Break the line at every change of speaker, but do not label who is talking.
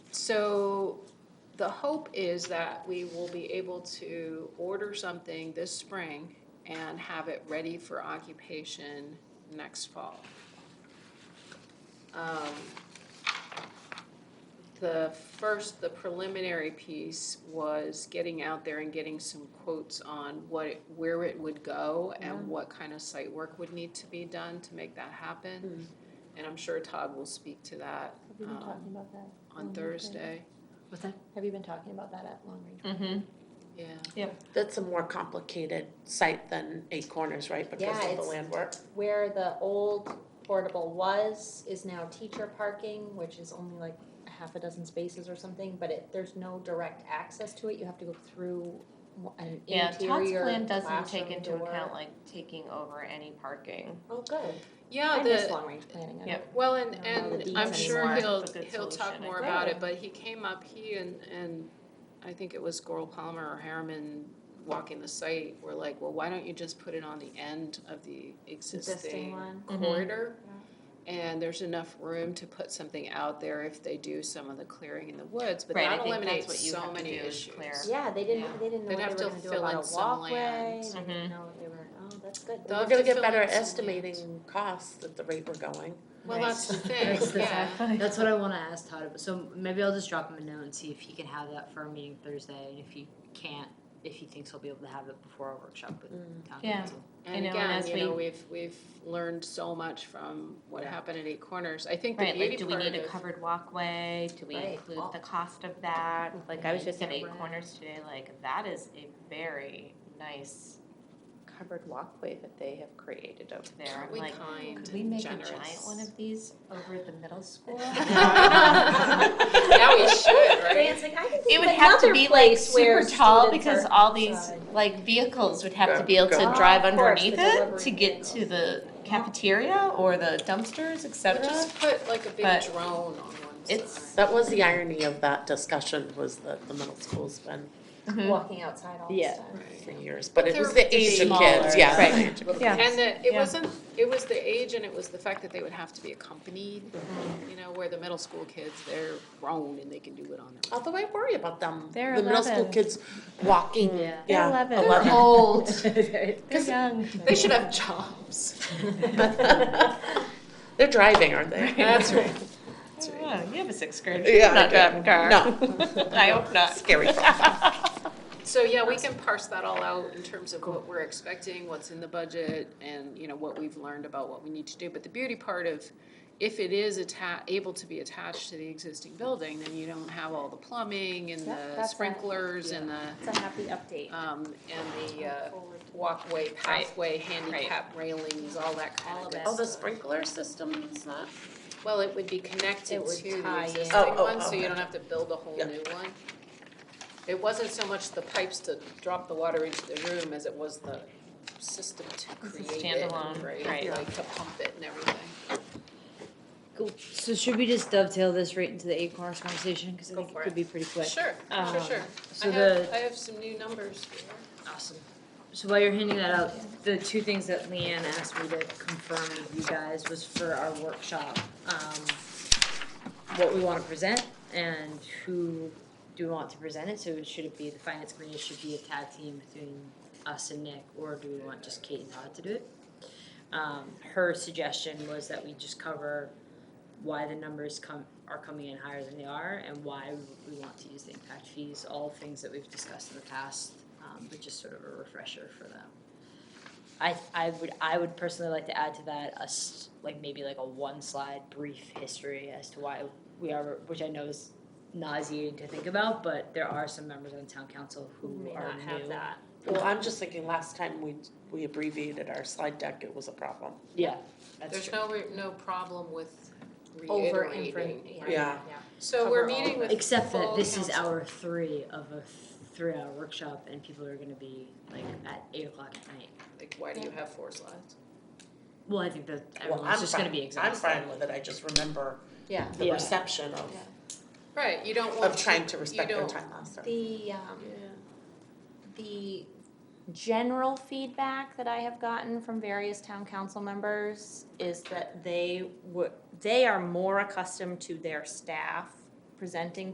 So the hope is that we will be able to order something this spring and have it ready for occupation next fall. Um, The first, the preliminary piece was getting out there and getting some quotes on what, it- where it would go and what kind of site work would need to be done to make that happen. And I'm sure Todd will speak to that.
Have you been
um,
talking about that? long
on
range planning?
Thursday.
What's that?
Have you been talking about that at long range?
Mm-hmm.
Yeah.
That's a more complicated site than Eight Corners, right,
Yeah,
because of the
it's-
land work?
Where the old portable was is now teacher parking, which is only like a half a dozen spaces or something, but it, there's no direct access to it. You have to go through an
Yeah,
interior classroom door.
Todd's plan doesn't take into account like taking over any parking.
Oh, good.
Yeah,
I miss
the,
long range planning. I
Yep.
don't-
well, and,
I don't know the
and I'm
deeds
sure
anymore.
he'll,
It's a good
he'll talk
solution, I
more
think.
about it,
Yeah.
but he came up, he and, and I think it was Goral Palmer or Harriman walking the site, were like, well, why don't you just put it on the end of the
Existing
existing
one.
Mhm.
corridor? And there's enough room to put something out there if they do some of the clearing in the woods, but
Right, I
that
think that's
eliminates
what you
so
have to
many
do is
issues.
clear.
Yeah, they didn't,
Yeah.
they didn't know
They'd
what
have
they
to
were gonna do
fill in
about a
some
walkway.
land.
They didn't
Mhm.
know what they were, oh, that's good.
They'll
We're
have
gonna
to
get
fill
better
in some land.
estimating costs at the rate we're going.
Well,
Right.
that's the thing,
That's the
yeah.
fact. That's what I want to ask Todd. About. So maybe I'll just drop him a note and see if he can have that for our meeting Thursday, and if he can't, if he thinks he'll be able to have it before our workshop with town
Yeah.
council.
And
know, and
again,
as
you know,
we-
we've, we've learned so much from what
Yeah.
happened at Eight Corners. I think the
Right, like,
beauty
do we
part
need a
of,
covered walkway? Do we
Right.
include the cost of that? Like, I was just at
Yeah,
Eight
right.
Corners today, like, that is a very nice covered walkway that they have created over there.
aren't
I'm
we
like,
kind
could we
and
make
generous?
a giant one of these over at the middle school?
Yeah, we should, right?
Dan's like, I can
It
think
would
of
have to
another
be like
place
super
where
tall
students
because
are
all these
outside.
like vehicles would have
Go-
to be able
go.
to
Ah,
drive
of course,
underneath
the
it
delivery
to get to
vehicles.
the cafeteria or the dumpsters, etc.
Just put like a big
But
drone on one side.
it's-
That was the irony of that discussion, was that the middle school's been
walking outside all the
Yeah.
time.
for years, but it was
They're
the Asian
smaller,
kids, yeah.
right.
the Asian kids.
Yeah.
And the, it
Yeah.
wasn't, it was the age and it was the fact that they would have to be accompanied,
Mm-hmm.
you know, where the middle school kids, they're grown and they can do it on their own.
Although I worry about them, the
They're
middle school
11.
kids walking,
Yeah.
yeah,
eleven.
eleven.
They're old. They're
'Cause-
young.
They should have jobs.
They're driving, aren't they?
That's right.
Yeah, you have a sixth grader.
Yeah,
You're not
I
driving a car. No. I hope not.
Scary.
So, yeah, we can parse that all out in terms of what we're expecting, what's in the budget, and, you know, what we've learned about what we need to do. But the beauty part of, if it is atta- able to be attached to the existing building, then you don't have all the plumbing and
Yep,
the
that's a-
sprinklers and the,
It's a happy update.
um, and the, uh,
Forward to-
walkway, pathway, handicap railings, all that kind of
All of
good
it.
Oh, the
stuff.
sprinkler system is not?
Well, it would be
It
connected
would
to the
tie in.
existing
Oh, oh,
one, so
oh,
you don't have to build a whole
Yeah.
new one. It wasn't so much the pipes to drop the water into the room as it was the system to
It's a
create it,
standalone,
right,
right.
like to pump it and everything.
Cool. So should we just dovetail this right into the Eight Corners conversation because I
Go
think
for
it could
it.
be pretty quick.
Sure, sure,
Um,
sure. I
So the
have, I have some new numbers here.
Awesome. So while you're handing that out, the two things that Leanne asked me to confirm with you guys was for our workshop, um, what we wanna present and who do we want to present it, so should it be, the finance committee should be a tag team between us and Nick, or do we want just Kate and Todd to do it? Um, her suggestion was that we just cover why the numbers come, are coming in higher than they are, and why we want to use the impact fees, all things that we've discussed in the past, um, but just sort of a refresher for them. I, I would, I would personally like to add to that a s like maybe like a one slide brief history as to why we are, which I know is nauseating to think about, but there are some members on town council who
May
are
not
new.
have that.
Well, I'm just thinking, last time we, we abbreviated our slide deck, it was a problem.
Yeah, that's
There's
true.
no, re- no problem with
Over
reiterating.
Yeah.
So we're
Cover all
meeting
of
with
Except
full
that this is
council.
hour three of a three-hour workshop, and people are gonna be like at eight o'clock at night.
Like, why do you have four slides?
Well, I think that
Well,
everyone's
I'm
just gonna
fine,
be
I'm
exhausted.
fine with it, I just remember
Yeah,
the
Yeah.
perception of,
Right, you don't want.
of trying to respect their
don't-
time last time.
the, um,
Yeah.
the general feedback that I have gotten from various town council members is that they would, they are more accustomed to their staff presenting